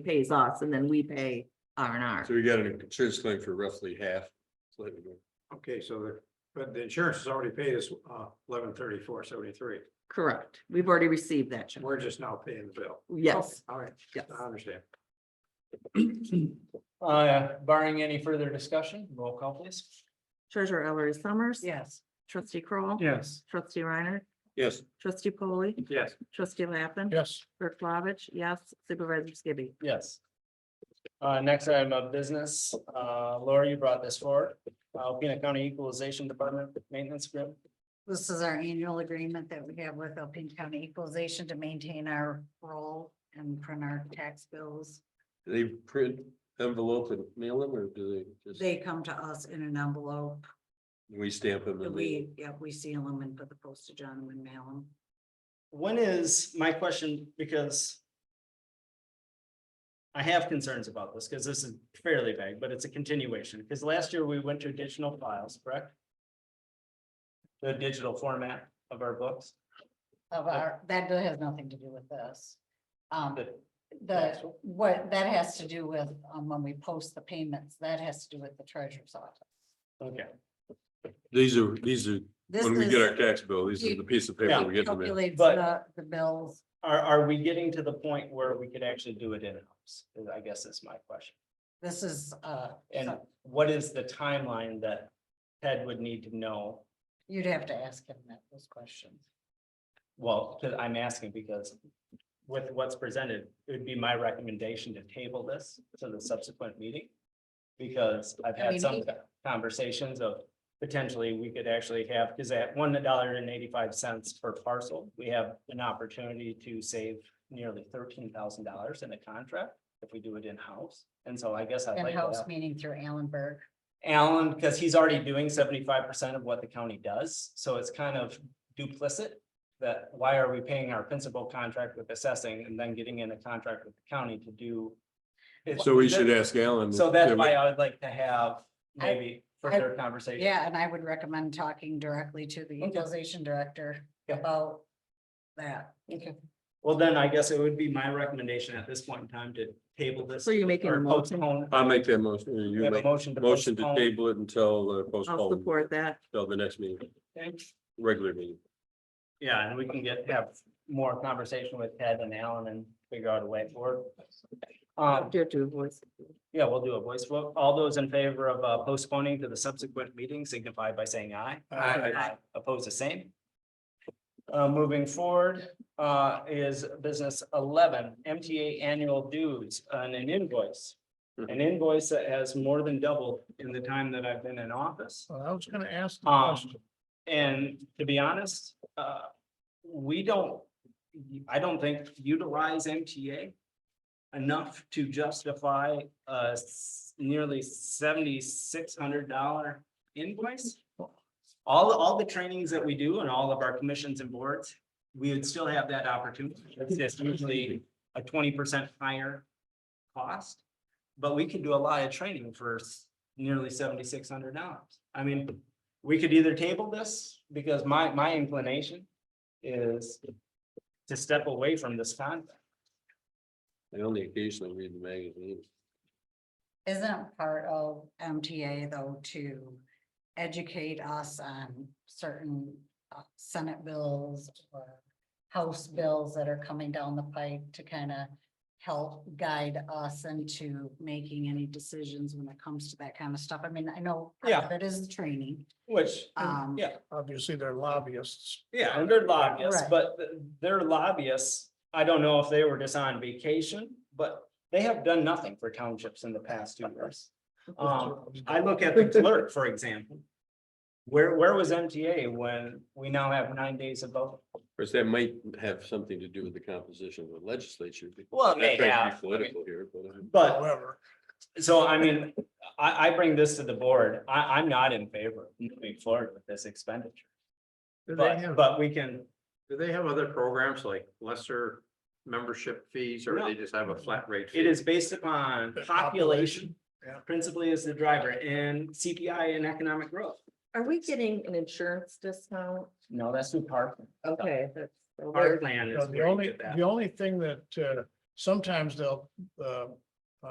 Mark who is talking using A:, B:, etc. A: pays us and then we pay R and R.
B: So we got an insurance claim for roughly half. slightly more.
C: Okay, so the, but the insurance has already paid us uh eleven thirty-four seventy-three.
A: Correct. We've already received that check.
C: We're just now paying the bill. Oh,
A: Yes,
C: All right,
A: yes.
C: I understand.
D: Uh, barring any further discussion, roll call please.
A: Treasurer Ellery Summers.
D: Yes.
A: Trustee Kroll,
D: Yes.
A: Trustee Reiner.
B: Yes,
A: Trustee Polly.
C: Yes,
A: Trustee Lappin.
D: Yes.
A: Clerk Flavich, yes. Supervisor Skibby.
D: Yes. Uh, next item of business, uh, Laura, you brought this forward, uh, Alpena County Equalization Department Maintenance Group.
E: This is our annual agreement that we have with Alpine County Equalization to maintain our role and print our tax bills.
B: they print envelope and mail them, or do they just,
E: They come to us in an envelope.
B: we stamp them?
E: that
B: and they-
E: We, yeah, we seal them and put the postage on them and mail them.
D: When is my question, because I have concerns about this, because this is fairly vague, but it's a continuation, because last year we went to additional files, correct? The digital format of our books.
E: Of our, that has nothing to do with this. Um,
D: But-
E: the, what, that has to do with, um, when we post the payments, that has to do with the treasurer's office.
D: Okay,
B: These are, these are,
E: This
B: when we get our
E: is
B: tax bill, these are the piece of paper we get from it.
E: calculates
D: But-
E: the, the bills.
D: are, are we getting to the point where we could actually do it in-house? Is- I guess that's my question.
E: This is, uh,
D: And
E: so-
D: what is the timeline that Ted would need to know?
E: You'd have to ask him that, those questions.
D: Well, 'cause I'm asking because with what's presented, it would be my recommendation to table this to the subsequent meeting. Because I've
E: I
D: had
E: mean,
D: some
E: he-
D: conversations of potentially we could actually have, because at one dollar and eighty-five cents per parcel, we have an opportunity to save nearly thirteen thousand dollars in a contract if we do it in-house. And so I guess I'd like to
E: In-house
D: have-
E: meeting through Allenberg.
D: Alan, because he's already doing seventy-five percent of what the county does, so it's kind of duplicit. That why are we paying our principal contract with assessing and then getting in a contract with the county to do? It's-
B: So we should ask Alan.
D: So that's
B: can we-
D: why I would like to have
E: I-
D: maybe further conversation.
E: Yeah, and I would recommend talking directly to the
D: Okay.
E: equalization director
D: Yeah.
E: about that.
D: Okay. Well, then I guess it would be my recommendation at this point in time to table this.
A: So you're making a
D: or
A: motion?
D: postpone-
B: I'll make that motion. or You
D: We have a
B: make
D: motion to.
B: motion to
D: postpone.
B: table it until the
A: I'll
B: postpone,
A: support that.
B: till the next meeting,
D: Thanks.
B: regular meeting.
D: Yeah, and we can get, have more conversation with Ted and Alan and figure out a way forward. Um,
A: Dear to voice.
D: yeah, we'll do a voice vote. All those in favor of uh, postponing to the subsequent meeting signify by saying aye.
C: Aye.
D: Oppose the same. Uh, moving forward, uh, is business eleven, MTA annual dues on an invoice. An invoice that has more than doubled in the time that I've been in office.
F: Well, I was gonna ask the
D: Um,
F: question.
D: and to be honest, uh, we don't, I don't think utilize MTA enough to justify a s- nearly seventy-six hundred dollar invoice. All, all the trainings that we do and all of our commissions and boards, we would still have that opportunity. It's just usually a twenty percent higher cost. But we can do a lot of training for s- nearly seventy-six hundred dollars. I mean, we could either table this, because my, my inclination is to step away from this contract.
B: I only occasionally read the magazine.
E: Isn't part of MTA though to educate us on certain uh, senate bills or house bills that are coming down the pike to kind of help guide us into making any decisions when it comes to that kind of stuff. I mean, I know part of it is the training.
D: Which,
E: Um,
D: Mm, yeah,
F: Obviously, they're lobbyists.
D: yeah, and they're lobbyists,
E: Right.
D: but th- they're lobbyists. I don't know if they were just on vacation, but they have done nothing for townships in the past two years. Um, I look at the clerk, for example. Where, where was MTA when we now have nine days of voting?
B: Of course, that might have something to do with the composition of the legislature.
D: Well,
B: Not trying to be Political here, but. uh,
D: But
F: However,
D: So I mean, I, I bring this to the board. I, I'm not in favor of moving forward with this expenditure.
F: do they
D: But,
F: have,
D: but we can,
C: do they have other programs like lesser membership fees or they just have a flat rate?
D: it
C: fee?
D: is based upon population.
F: yeah.
D: Principally as the driver and CPI and economic growth.
A: Are we getting an insurance discount?
D: No, that's through park.
A: Okay, that's.
D: Our plan
F: you know,
D: is
F: the
D: where you
F: only,
D: get that.
F: the only thing that uh sometimes they'll, uh,